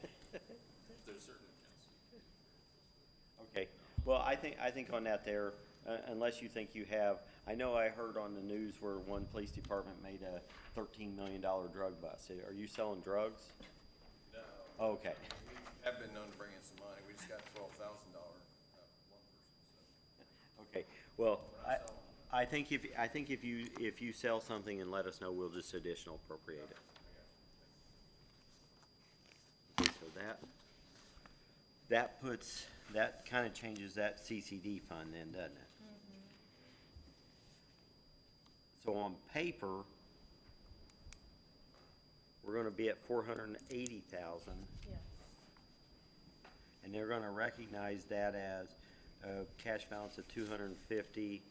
There's certain accounts. Okay, well, I think, I think on that there, uh, unless you think you have, I know I heard on the news where one police department made a thirteen million dollar drug bust. Are you selling drugs? No, Okay, we have been known to bring in some money. We just got twelve thousand dollar, uh, one person, so. okay, well, I, I think if, I think if you, if you sell something and let us know, we'll just additional appropriate it. Okay, so that, that puts, that kinda changes that CCD fund then, doesn't it? So on paper, we're gonna be at four hundred and eighty thousand, Yeah, and they're gonna recognize that as a cash balance of two hundred and fifty,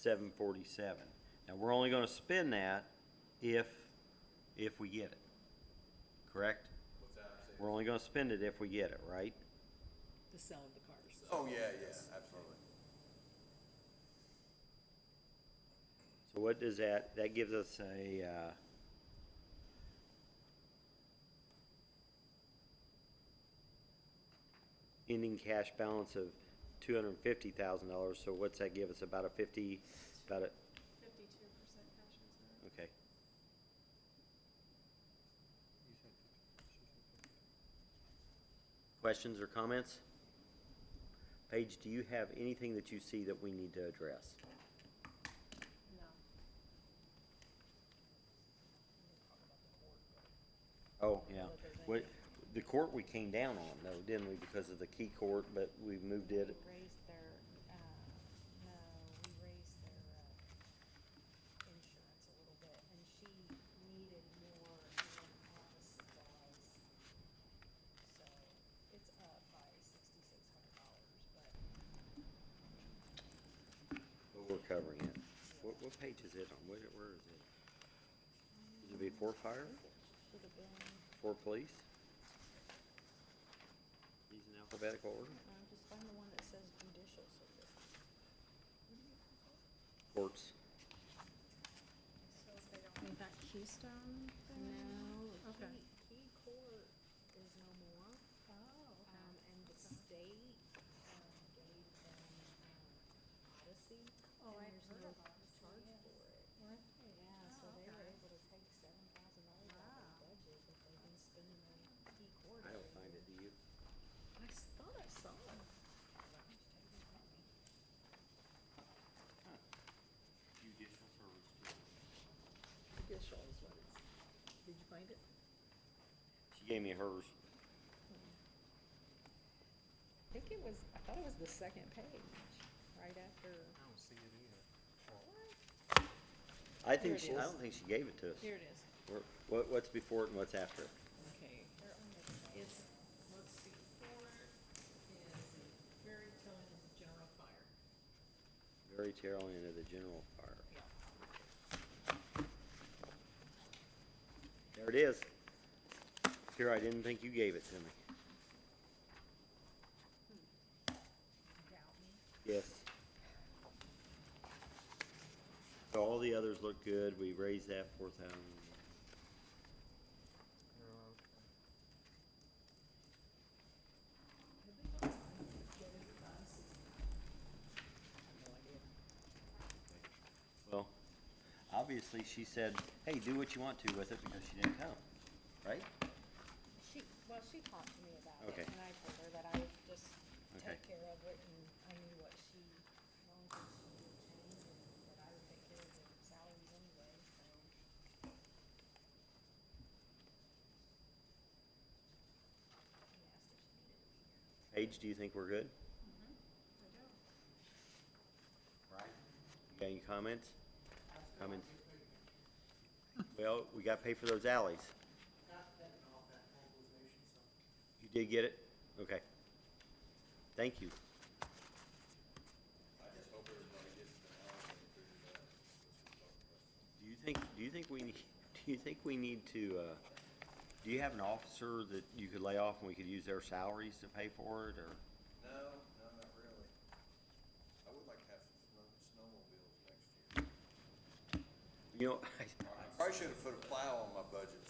seven forty-seven. Now, we're only gonna spend that if, if we get it, correct? What's that? Say- We're only gonna spend it if we get it, right? the selling the cars. Oh, yeah, yeah, absolutely. So what does that, that gives us a, uh, ending cash balance of two hundred and fifty thousand dollars, so what's that give us, about a fifty, about a, Fifty-two percent cash reserve. okay. Questions or comments? Paige, do you have anything that you see that we need to address? No. Oh, yeah. what they're What, the court we came down on though, didn't we, because of the key court, but we moved We it. raised their, uh, no, we raised their, uh, insurance a little bit, and she needed more in-office supplies. So it's up by sixty-six hundred dollars, but But we're covering it. What, what page is it on? Where, where is it? Is it before fire? should have been, Before police? These in alphabetical order? um, just find the one that says judicial service. Courts. Is that Keystone? No, Okay. key, key court is no more. Oh, Um, and the state, um, gave them, um, Odyssey. Oh, and I've there's heard no of Odyssey, Charge yeah. for it. Yeah, so they Weren't they? Oh, were okay. able to take seven thousand dollars out of Wow. their budget that they've been spending on key court. I don't every find year. it, do you? I s- thought I saw it. Why don't you take it from me? Judicial service. Judicial is what it's, did you find it? She gave me hers. I think it was, I thought it was the second page, right after. I think Here it she, I is. don't think she gave it to us. Here it is. Where- What, what's before it and what's after it? Okay. They're on the It's, what's before is very telling of the general fire. Very terrible into the general fire. Yeah. There it is. Here, I didn't think you gave it to me. doubt me. Yes. So all the others look good, we raised that four thousand. Well, obviously, she said, hey, do what you want to with it, because she didn't come, right? She, well, she talked to me about Okay. it, and I told her that I would just Okay. take care of it, and I knew what she wanted, she would change, and that I would take care of the salaries anyway, so. She asked if she needed to Paige, be here. do you think we're good? I do. Right. You got any comments? Comments? Well, we gotta pay for those alleys. You did get it? Okay. Thank you. I just hope everybody gets the house and figures out. Do you think, do you think we, need- do you think we need to, uh, do you have an officer that you could lay off and we could use their salaries to pay for it, or? No, no, not really. I would like to have some snow, snowmobiles next year. You know, I Probably should have put a plow on my budget